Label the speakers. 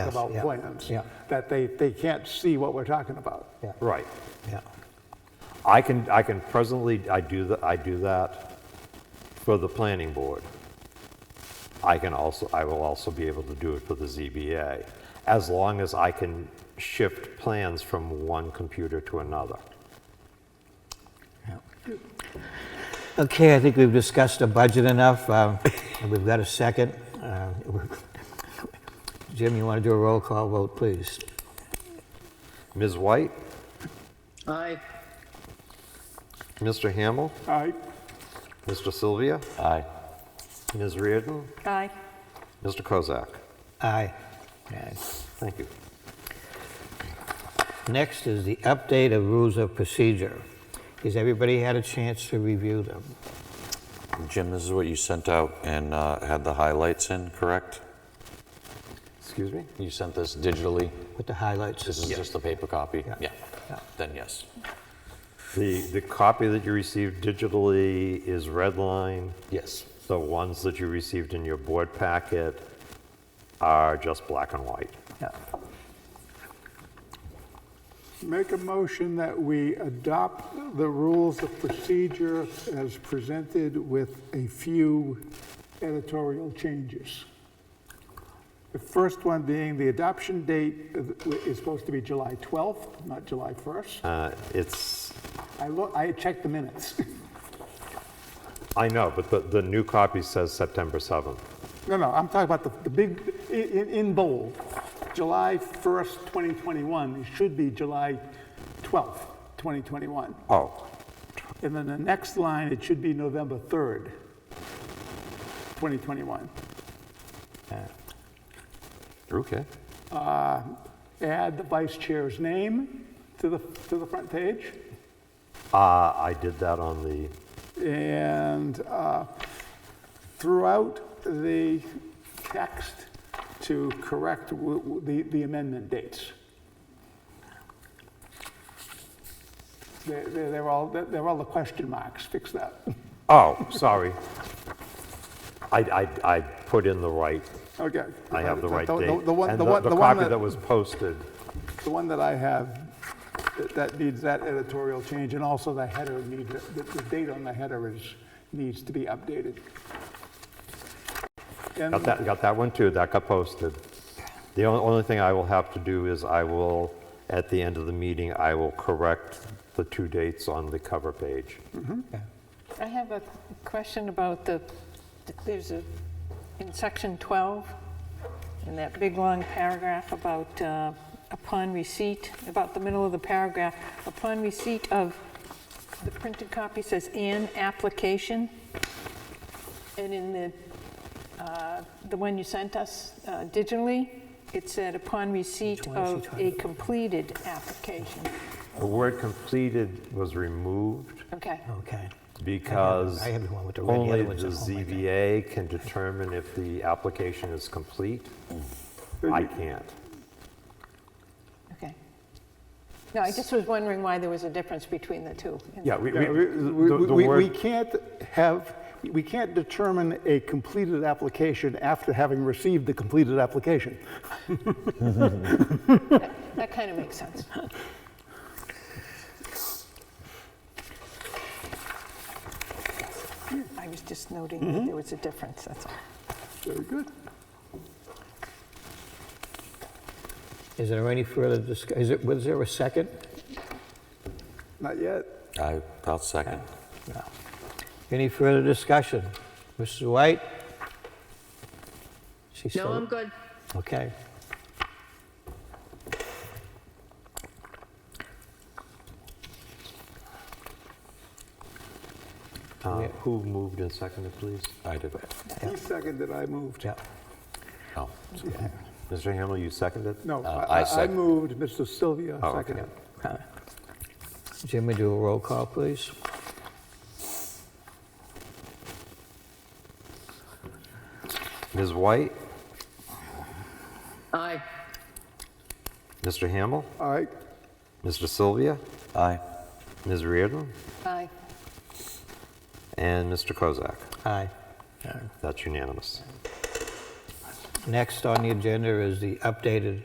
Speaker 1: Yes,
Speaker 2: about
Speaker 1: yeah,
Speaker 2: plans.
Speaker 1: yeah.
Speaker 2: That they, they can't see what we're talking about.
Speaker 1: Yeah,
Speaker 3: Right.
Speaker 1: yeah.
Speaker 3: I can, I can presently, I do, th- I do that for the planning board. I can also, I will also be able to do it for the ZBA, as long as I can shift plans from one computer to another.
Speaker 1: Okay, I think we've discussed the budget enough. um, and We've got a second. Uh, Jim, you want to do a roll call vote, please?
Speaker 3: Ms. White,
Speaker 4: Aye.
Speaker 3: Mr. Hamel,
Speaker 2: All right,
Speaker 3: Mr. Sylvia,
Speaker 5: Aye.
Speaker 3: Ms. Reardon,
Speaker 4: Aye.
Speaker 3: Mr. Kozak.
Speaker 1: Aye. Aye.
Speaker 3: Thank you.
Speaker 1: Next is the update of rules of procedure. Has everybody had a chance to review them?
Speaker 5: Jim, this is what you sent out and uh, had the highlights in, correct?
Speaker 3: Excuse me?
Speaker 5: You sent this digitally?
Speaker 1: With the highlights?
Speaker 5: This is just the paper copy?
Speaker 1: Yeah. Yeah.
Speaker 5: Then yes.
Speaker 3: The, the copy that you received digitally is redline.
Speaker 5: Yes.
Speaker 3: The ones that you received in your board packet are just black and white.
Speaker 1: Yeah.
Speaker 2: make a motion that we adopt the rules of procedure as presented with a few editorial changes. The first one being the adoption date is supposed to be July 12th, not July 1st.
Speaker 3: Uh, It's,
Speaker 2: I look, I checked the minutes.
Speaker 3: I know, but the, the new copy says September 7th.
Speaker 2: No, no, I'm talking about the, the big, i- in, in bold, July 1st, 2021, it should be July 12th, 2021.
Speaker 3: Oh.
Speaker 2: And then the next line, it should be November 3rd, 2021.
Speaker 3: Okay.
Speaker 2: Add the vice chair's name to the, to the front page.
Speaker 3: Uh, I did that on the,
Speaker 2: And uh, throughout the text to correct w- w- the the amendment dates. They're- They're they're all, they're all the question marks, fix that.
Speaker 3: oh, sorry. I, I, I put in the right,
Speaker 2: Okay.
Speaker 3: I have the right
Speaker 2: The-
Speaker 3: date.
Speaker 2: The one,
Speaker 3: And
Speaker 2: the one,
Speaker 3: the
Speaker 2: the one
Speaker 3: copy that
Speaker 2: that,
Speaker 3: was posted,
Speaker 2: the one that I have, that- that needs that editorial change, and also the header needs, the, the date on the header is, needs to be updated. And-
Speaker 3: got that, got that one too, that got posted. The only, only thing I will have to do is I will, at the end of the meeting, I will correct the two dates on the cover page.
Speaker 4: I have a question about the, there's a, in section 12, in that big long paragraph about uh, upon receipt, about the middle of the paragraph, upon receipt of, the printed copy says an application. And in the, uh, the one you sent us uh, digitally, it said upon receipt of a completed application.
Speaker 3: The word completed was removed
Speaker 4: Okay.
Speaker 1: Okay.
Speaker 3: because
Speaker 1: I have the one with the red, the
Speaker 3: only
Speaker 1: other one's
Speaker 3: the
Speaker 1: at home, I think.
Speaker 3: ZBA can determine if the application is complete. I can't.
Speaker 4: Okay. No, I just was wondering why there was a difference between the two.
Speaker 3: Yeah, we,
Speaker 2: Yeah, We,
Speaker 3: we, the
Speaker 2: we-
Speaker 3: the
Speaker 2: we- we
Speaker 3: word,
Speaker 2: can't have, we can't determine a completed application after having received the completed application.
Speaker 4: That kind of makes sense. I was just noting that there was a difference, that's all.
Speaker 2: Very good.
Speaker 1: Is there any further discuss, is it, was there a second?
Speaker 2: Not yet.
Speaker 5: I, I'll second.
Speaker 1: No. Any further discussion? Mrs. White? She's
Speaker 6: No,
Speaker 1: still-
Speaker 6: I'm good.
Speaker 1: Okay.
Speaker 3: uh, who moved and seconded, please?
Speaker 5: I did.
Speaker 2: He seconded, I moved.
Speaker 1: Yeah.
Speaker 5: Oh,
Speaker 3: Mr. Hamel, you seconded?
Speaker 2: No,
Speaker 5: Uh,
Speaker 2: I-
Speaker 5: I
Speaker 2: I I
Speaker 5: sec-
Speaker 2: moved, Mr. Sylvia
Speaker 3: Oh, okay.
Speaker 2: seconded.
Speaker 1: Jim, we do a roll call, please?
Speaker 3: Ms. White,
Speaker 6: Aye.
Speaker 3: Mr. Hamel,
Speaker 2: All right,
Speaker 3: Mr. Sylvia,
Speaker 5: aye.
Speaker 3: Ms. Reardon,
Speaker 4: Aye.
Speaker 3: and Mr. Kozak.
Speaker 1: Aye.
Speaker 3: That's unanimous.
Speaker 1: Next on the agenda is the updated